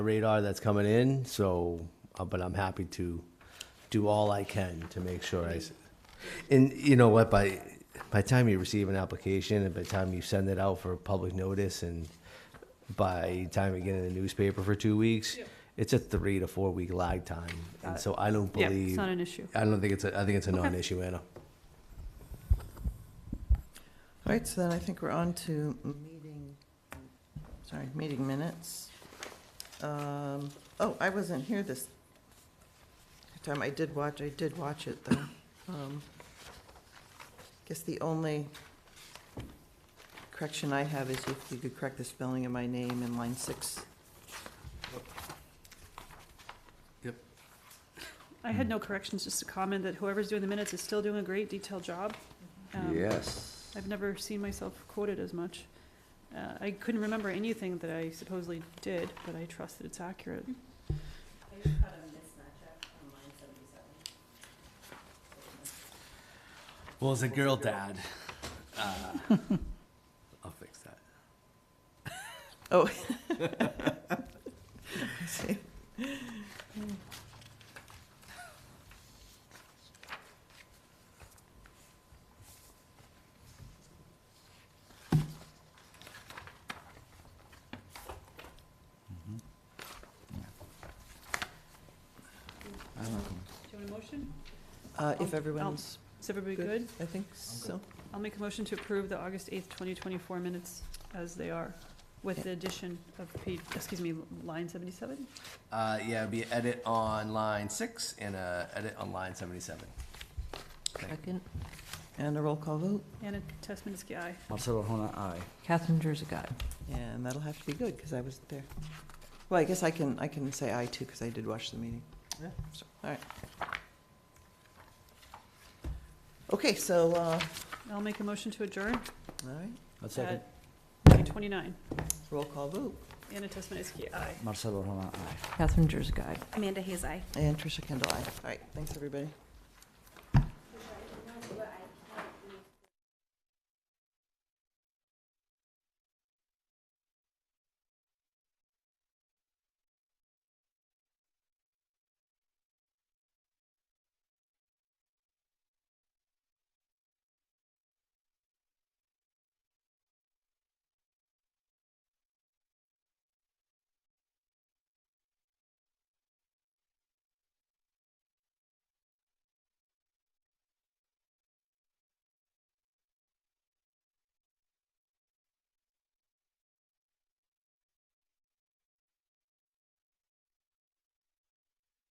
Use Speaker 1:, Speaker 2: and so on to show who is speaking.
Speaker 1: radar that's coming in, so, uh, but I'm happy to do all I can to make sure I, s- and you know what, by, by the time you receive an application, and by the time you send it out for public notice, and by the time you get in the newspaper for two weeks, it's a three to four week lag time, and so I don't
Speaker 2: Yeah, it's
Speaker 1: believe,
Speaker 2: not an issue.
Speaker 1: I don't think it's, a I think it's a non-issue, Anna.
Speaker 3: All right, so then I think we're on to meeting, sorry, meeting minutes. Um, Oh, I wasn't here this time. I did watch, I did watch it, though. Um, Guess the only correction I have is if you could correct the spelling of my name in line six.
Speaker 2: I
Speaker 4: Mm.
Speaker 2: had no corrections, just a comment that whoever's doing the minutes is still doing a great detailed job.
Speaker 4: Mm-hmm.
Speaker 2: Um,
Speaker 4: Yes.
Speaker 2: I've never seen myself quoted as much. Uh, I couldn't remember anything that I supposedly did, but I trust that it's accurate.
Speaker 1: Well, as a girl dad, uh, I'll fix that.
Speaker 3: Oh. I see.
Speaker 4: I don't know.
Speaker 2: Do you want a motion?
Speaker 3: Uh, If everyone's
Speaker 2: Is everybody
Speaker 3: good,
Speaker 2: good?
Speaker 3: I think so.
Speaker 2: I'll make a motion to approve the August eighth, twenty twenty-four minutes as they are, with the addition of page, excuse me, line seventy-seven?
Speaker 1: Uh, yeah, it'd be edit on line six and uh edit on line seventy-seven.
Speaker 5: Second.
Speaker 3: And a roll call vote,
Speaker 2: Anna Tesmeniski, aye.
Speaker 4: Marcelo Hona, aye.
Speaker 5: Catherine Jersey.
Speaker 3: and that'll have to be good, because I wasn't there. Well, I guess I can, I can say aye too, because I did watch the meeting.
Speaker 1: Yeah.
Speaker 3: So, All right. Okay, so, uh, all
Speaker 2: I'll make a motion to adjourn
Speaker 3: right,
Speaker 1: That's
Speaker 2: at nine twenty-nine.
Speaker 3: roll call vote,
Speaker 2: Anna Tesmeniski, aye.
Speaker 4: Marcelo Hona, aye.
Speaker 5: Catherine Jersey.
Speaker 6: Amanda Hayes, aye.
Speaker 3: and Tricia Kendall, aye. All right, thanks, everybody.